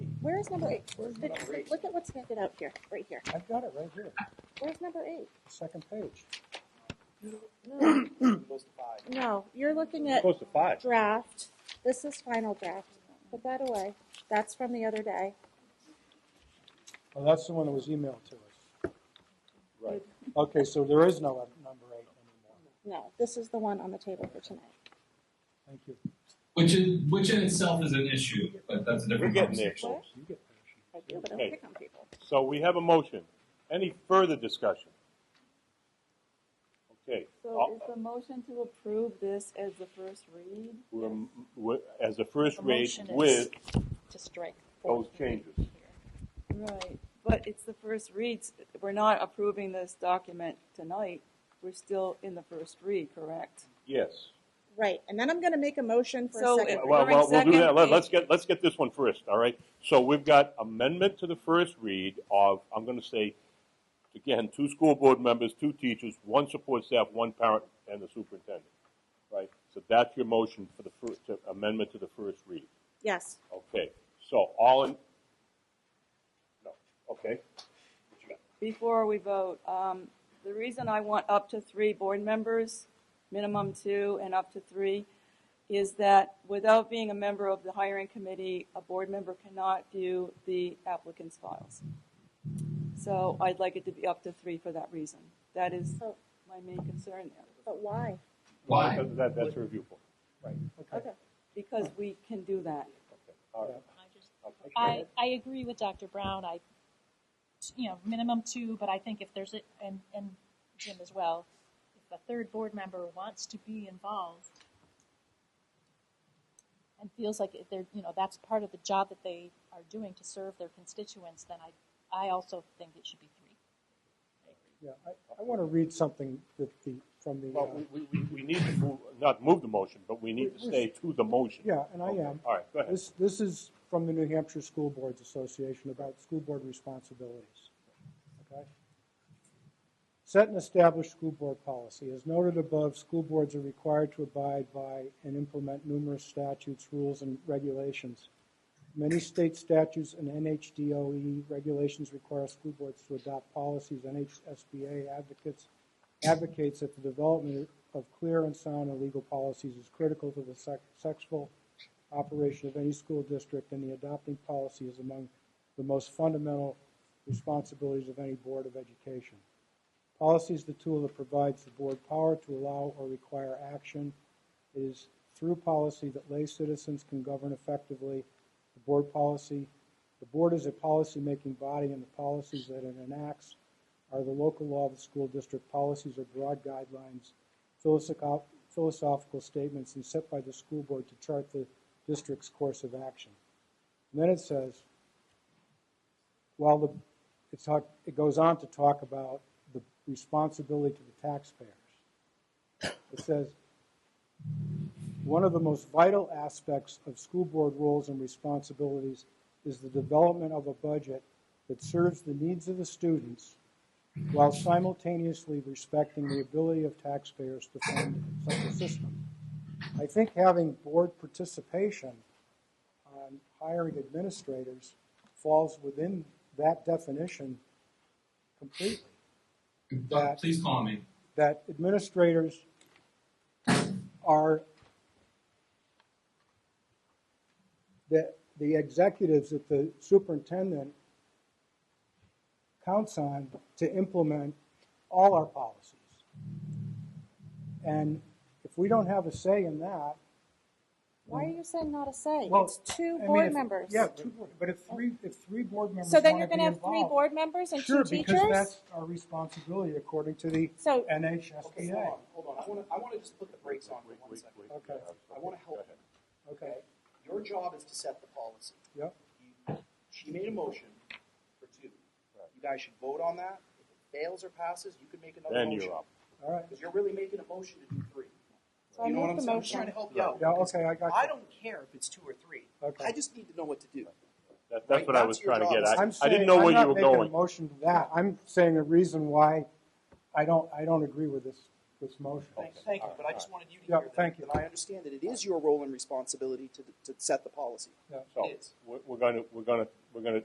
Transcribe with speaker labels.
Speaker 1: Where is number eight? Where's number eight? Look at what's handed out here, right here.
Speaker 2: I've got it right here,
Speaker 1: Where's number eight?
Speaker 2: second page.
Speaker 1: No,
Speaker 2: Close to five.
Speaker 1: no, you're looking at
Speaker 3: Close to five.
Speaker 1: draft. This is final draft. Put that away. That's from the other day.
Speaker 2: Well, Oh, that's the one that was emailed to us.
Speaker 3: Right.
Speaker 2: Okay, so there is no number eight anymore.
Speaker 1: No, this is the one on the table for tonight.
Speaker 2: Thank you.
Speaker 4: Which is, which in itself is an issue, but that's a
Speaker 3: We're
Speaker 4: different
Speaker 3: getting there,
Speaker 4: conversation.
Speaker 3: folks.
Speaker 2: You get permission.
Speaker 1: I do, but I
Speaker 3: Okay.
Speaker 1: don't pick on people.
Speaker 3: So we have a motion. Any further discussion? Okay. Uh,
Speaker 5: So is the motion to approve this as the first read?
Speaker 3: We're, we as a first
Speaker 6: The
Speaker 3: read
Speaker 6: motion is-
Speaker 3: with
Speaker 6: to strike.
Speaker 3: those changes.
Speaker 5: Right. But it's the first reads, we're not approving this document tonight, we're still in the first read, correct?
Speaker 3: Yes.
Speaker 1: Right, and then I'm gonna make a motion for a
Speaker 5: So
Speaker 1: second.
Speaker 5: it-
Speaker 3: Well, well, we'll do
Speaker 5: During
Speaker 3: that. Let-
Speaker 5: second
Speaker 3: Let's get, let's get this one first, all right? So we've got amendment to the first read of, I'm gonna say, again, two school board members, two teachers, one support staff, one parent, and the superintendent, right? So that's your motion for the first, amendment to the first read.
Speaker 1: Yes,
Speaker 3: Okay, so all in, no, okay. What you got?
Speaker 5: Before we vote, um, the reason I want up to three board members, minimum two and up to three, is that without being a member of the hiring committee, a board member cannot view the applicant's files. So I'd like it to be up to three for that reason. That is
Speaker 1: So-
Speaker 5: my main concern there.
Speaker 1: but why?
Speaker 4: Why?
Speaker 3: That- That, that's a review point.
Speaker 2: Okay.
Speaker 5: because we can do that.
Speaker 3: Okay, all right.
Speaker 6: I just-
Speaker 3: Okay.
Speaker 6: I, I agree with Dr. Brown, I, you know, minimum two, but I think if there's, a and, and Jim as well, if a third board member wants to be involved and feels like if they're, you know, that's part of the job that they are doing to serve their constituents, then I, I also think it should be three.
Speaker 2: Yeah, I, I want to read something that the, from the,
Speaker 3: Well,
Speaker 2: uh,
Speaker 3: we, we- we, we need to move, not move the motion, but we need to stay to the motion.
Speaker 2: yeah, and I
Speaker 3: Okay,
Speaker 2: am.
Speaker 3: All right, go ahead.
Speaker 2: This, this is from the New Hampshire School Boards Association about school board responsibilities. Okay? Set and establish school board policy. As noted above, school boards are required to abide by and implement numerous statutes, rules, and regulations. Many state statutes and NHDOE E regulations require school boards to adopt policies. NHSBA advocates advocates that the development of clear and sound and legal policies is critical to the sec- successful operation of any school district, and the adopting policy is among the most fundamental responsibilities of any board of education. Policy is the tool that provides the board power to allow or require action. It is through policy that lay citizens can govern effectively. The board policy, the board is a policy-making body, and the policies that it enacts are the local law of the school district. Policies are broad guidelines, philosophical, philosophical statements, and set by the school board to chart the district's course of action. And then it says, while the, it's, talk- it goes on to talk about the responsibility to the taxpayers. It says, one of the most vital aspects of school board roles and responsibilities is the development of a budget that serves the needs of the students while simultaneously respecting the ability of taxpayers to fund such a system. I think having board participation on hiring administrators falls within that definition completely
Speaker 4: But please call me.
Speaker 2: that administrators are the, the executives that the superintendent counts on to implement all our policies. And if we don't have a say in that,
Speaker 1: Why are you saying not a say?
Speaker 2: well,
Speaker 1: It's two
Speaker 2: I mean,
Speaker 1: board
Speaker 2: if-
Speaker 1: members.
Speaker 2: Yeah, two board, but if three, if three board members
Speaker 1: So then
Speaker 2: wanna
Speaker 1: you're gonna
Speaker 2: be
Speaker 1: have three
Speaker 2: involved-
Speaker 1: board members and two
Speaker 2: Sure, because
Speaker 1: teachers?
Speaker 2: that's our responsibility according to the
Speaker 1: So-
Speaker 7: Okay, hold
Speaker 2: NHSBA.
Speaker 7: on, hold on. I want to, I want to just put the brakes on for one
Speaker 3: Wait,
Speaker 7: second.
Speaker 3: wait,
Speaker 2: Okay,
Speaker 7: I want to help you,
Speaker 2: okay,
Speaker 7: okay? Your job is to set the policy.
Speaker 2: yep.
Speaker 7: You- She made a motion for two. You guys should vote on that. If it fails or passes, you can make another
Speaker 3: Then
Speaker 7: motion.
Speaker 3: you're up.
Speaker 2: All right.
Speaker 7: Because you're really making a motion to do three.
Speaker 1: So I
Speaker 7: You know what
Speaker 1: make
Speaker 7: I'm
Speaker 1: the
Speaker 7: saying? I'm just
Speaker 1: motion.
Speaker 7: trying to help you out.
Speaker 2: Yeah, okay, I got you.
Speaker 7: I don't care if it's two or three.
Speaker 2: Okay.
Speaker 7: I just need to know what to do.
Speaker 3: That, that's
Speaker 7: Right,
Speaker 3: what I
Speaker 7: that's
Speaker 3: was
Speaker 7: your
Speaker 3: trying to
Speaker 7: job.
Speaker 3: get at.
Speaker 2: I'm
Speaker 3: I
Speaker 2: saying-
Speaker 3: didn't know where you were
Speaker 2: I'm not making a
Speaker 3: going.
Speaker 2: motion to that. I'm saying a reason why I don't, I don't agree with this this motion.
Speaker 7: Thank, thank you, but I just wanted you to
Speaker 2: Yeah,
Speaker 7: hear that.
Speaker 2: thank you.
Speaker 7: And I understand that it is your role and responsibility to, to set the policy.
Speaker 2: Yeah.
Speaker 3: So,
Speaker 7: It is.
Speaker 3: we're, we're gonna, we're gonna, we're gonna